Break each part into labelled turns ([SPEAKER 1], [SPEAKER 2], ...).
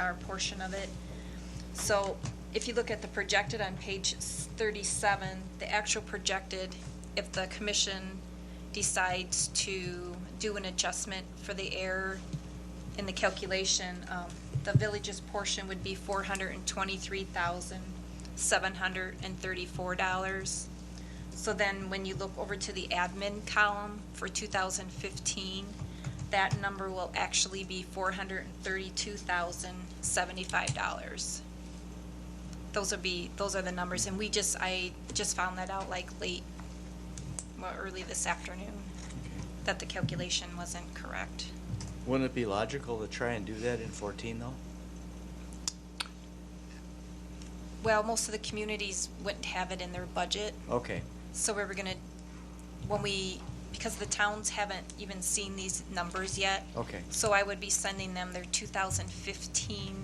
[SPEAKER 1] our portion of it. So if you look at the projected on page s- 37, the actual projected, if the commission decides to do an adjustment for the error in the calculation, um, the village's portion would be $423,734. So then when you look over to the admin column for 2015, that number will actually be $432,075. Those would be, those are the numbers, and we just, I just found that out like late, well, early this afternoon, that the calculation wasn't correct.
[SPEAKER 2] Wouldn't it be logical to try and do that in 14, though?
[SPEAKER 1] Well, most of the communities wouldn't have it in their budget.
[SPEAKER 2] Okay,
[SPEAKER 1] So we were gonna, when we, because the towns haven't even seen these numbers yet.
[SPEAKER 2] Okay.
[SPEAKER 1] So I would be sending them their 2015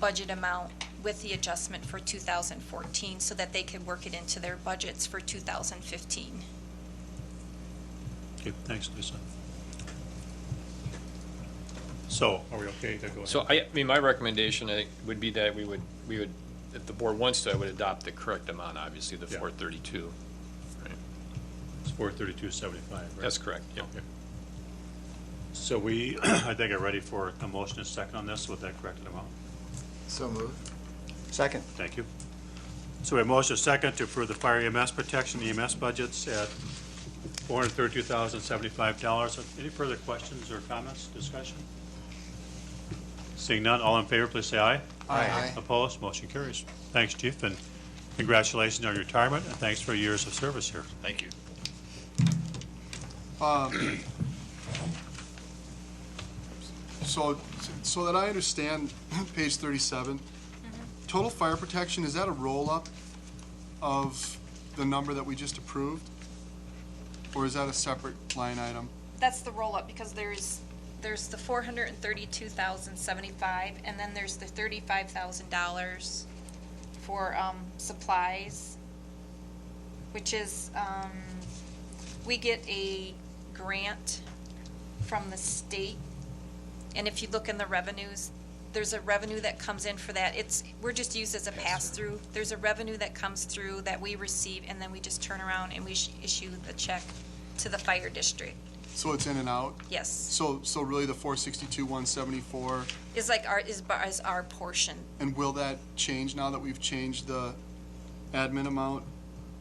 [SPEAKER 1] budget amount with the adjustment for 2014 so that they could work it into their budgets for 2015.
[SPEAKER 3] Okay, thanks, Lisa. So, are we okay to go ahead?
[SPEAKER 4] So I, I mean, my recommendation I think, would be that we would, we would, if the board wants to, I would adopt the correct amount, obviously, the
[SPEAKER 3] Yeah.
[SPEAKER 4] four thirty-two.
[SPEAKER 3] It's four thirty-two seventy-five, right?
[SPEAKER 4] That's correct, yeah.
[SPEAKER 3] Okay. So we, I think are ready for a motion and second on this with that corrected amount.
[SPEAKER 5] So moved.
[SPEAKER 2] second.
[SPEAKER 3] Thank you. So we have motion and second to approve the fire EMS protection EMS budgets at four hundred thirty-two thousand seventy-five dollars. Any further questions or comments, discussion? Seeing none, all in favor, please say aye.
[SPEAKER 5] Aye.
[SPEAKER 3] Opposed, motion carries. Thanks, Chief, and congratulations on your retirement, and thanks for your years of service here.
[SPEAKER 4] Thank you.
[SPEAKER 5] Um, So, so that I understand, page 37, total fire protection, is that a roll-up of the number that we just approved? Or is that a separate line item?
[SPEAKER 1] That's the roll-up because there's, there's the 432,075 and then there's the $35,000 for um, supplies, which is, um, we get a grant from the state. And if you look in the revenues, there's a revenue that comes in for that. It's, we're just used as a pass-through. There's a revenue that comes through that we receive and then we just turn around and we sh- issue the check to the fire district.
[SPEAKER 5] So it's in and out?
[SPEAKER 1] Yes,
[SPEAKER 5] So, so really the 462, 174,
[SPEAKER 1] is like our, is, bu- is our portion.
[SPEAKER 5] and will that change now that we've changed the admin amount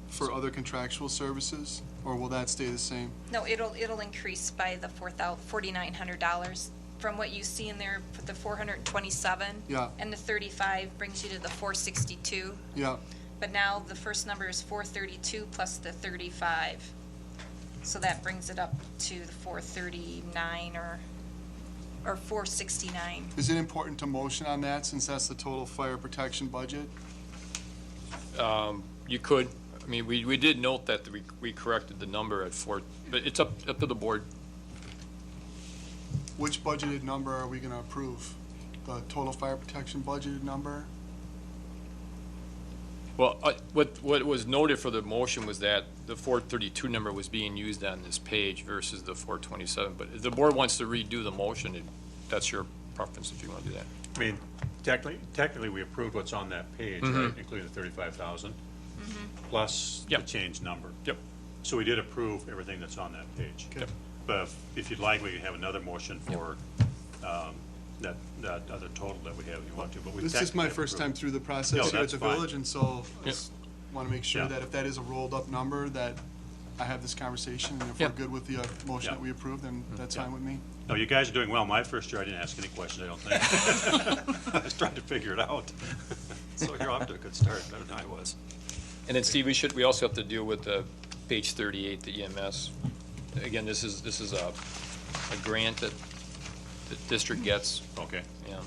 [SPEAKER 5] for other contractual services? Or will that stay the same?
[SPEAKER 1] No, it'll, it'll increase by the four thou, forty-nine hundred dollars. From what you see in there, for the four hundred and twenty-seven.
[SPEAKER 5] Yeah.
[SPEAKER 1] And the thirty-five brings you to the four sixty-two,
[SPEAKER 5] Yeah,
[SPEAKER 1] but now the first number is four thirty-two plus the thirty-five. So that brings it up to the four thirty-nine or, or four sixty-nine.
[SPEAKER 5] is it important to motion on that since that's the total fire protection budget?
[SPEAKER 4] You could, I mean, we, we did note that we, we corrected the number at four, but it's up, up to the board.
[SPEAKER 5] Which budgeted number are we gonna approve? The total fire protection budgeted number?
[SPEAKER 4] Well, I- what, what was noted for the motion was that the four thirty-two number was being used on this page versus the four twenty-seven, but if the board wants to redo the motion, it- that's your preference if you want to do that.
[SPEAKER 3] I mean, technically, technically, we approved what's on that page, right, including the thirty-five thousand, plus the
[SPEAKER 4] Mm-hmm. Yep.
[SPEAKER 3] change number.
[SPEAKER 4] Yep.
[SPEAKER 3] So we did approve everything that's on that page.
[SPEAKER 4] Yep.
[SPEAKER 3] But if- if you'd like, we can have another motion for um, that, that other total that we have, if you want to, but we.
[SPEAKER 5] This is my
[SPEAKER 3] technically
[SPEAKER 5] first time
[SPEAKER 3] approved.
[SPEAKER 5] through the
[SPEAKER 3] No,
[SPEAKER 5] process here at
[SPEAKER 3] that's
[SPEAKER 5] the
[SPEAKER 3] fine.
[SPEAKER 5] village, and so I
[SPEAKER 4] Yeah.
[SPEAKER 5] just wanna make sure
[SPEAKER 3] Yeah.
[SPEAKER 5] that if that is a rolled-up number, that I have this conversation, and if
[SPEAKER 4] Yeah.
[SPEAKER 5] we're good with the uh, motion
[SPEAKER 3] Yeah.
[SPEAKER 5] that we approve, then that's fine with me.
[SPEAKER 3] No, you guys are doing well. My first year, I didn't ask any questions, I don't think. I was trying to figure it out. So you're off to a good start, better than I was.
[SPEAKER 4] And then Steve, we should, we also have to deal with the page thirty-eight, the EMS. Again, this is, this is a, a grant that the district gets,
[SPEAKER 3] Okay.
[SPEAKER 4] yeah.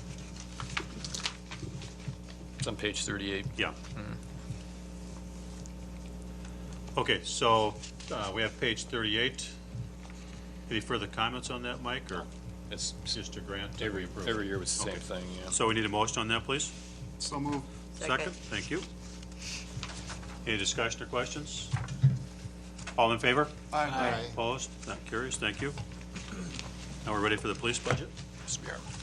[SPEAKER 4] It's on page thirty-eight.
[SPEAKER 3] Yeah. Hmm. Okay, so uh, we have page 38. Any further comments on that, Mike, or
[SPEAKER 4] It's
[SPEAKER 3] Mr. Grant? that we
[SPEAKER 4] every,
[SPEAKER 3] approve?
[SPEAKER 4] every year it's the same
[SPEAKER 3] Okay.
[SPEAKER 4] thing, yeah.
[SPEAKER 3] So we need a motion on that, please?
[SPEAKER 5] So move.
[SPEAKER 3] Second. Thank you. Any discussion or questions? All in favor?
[SPEAKER 5] Aye.
[SPEAKER 3] Opposed? Not curious, thank you. Now we're ready for the police budget?
[SPEAKER 4] Yes, we are.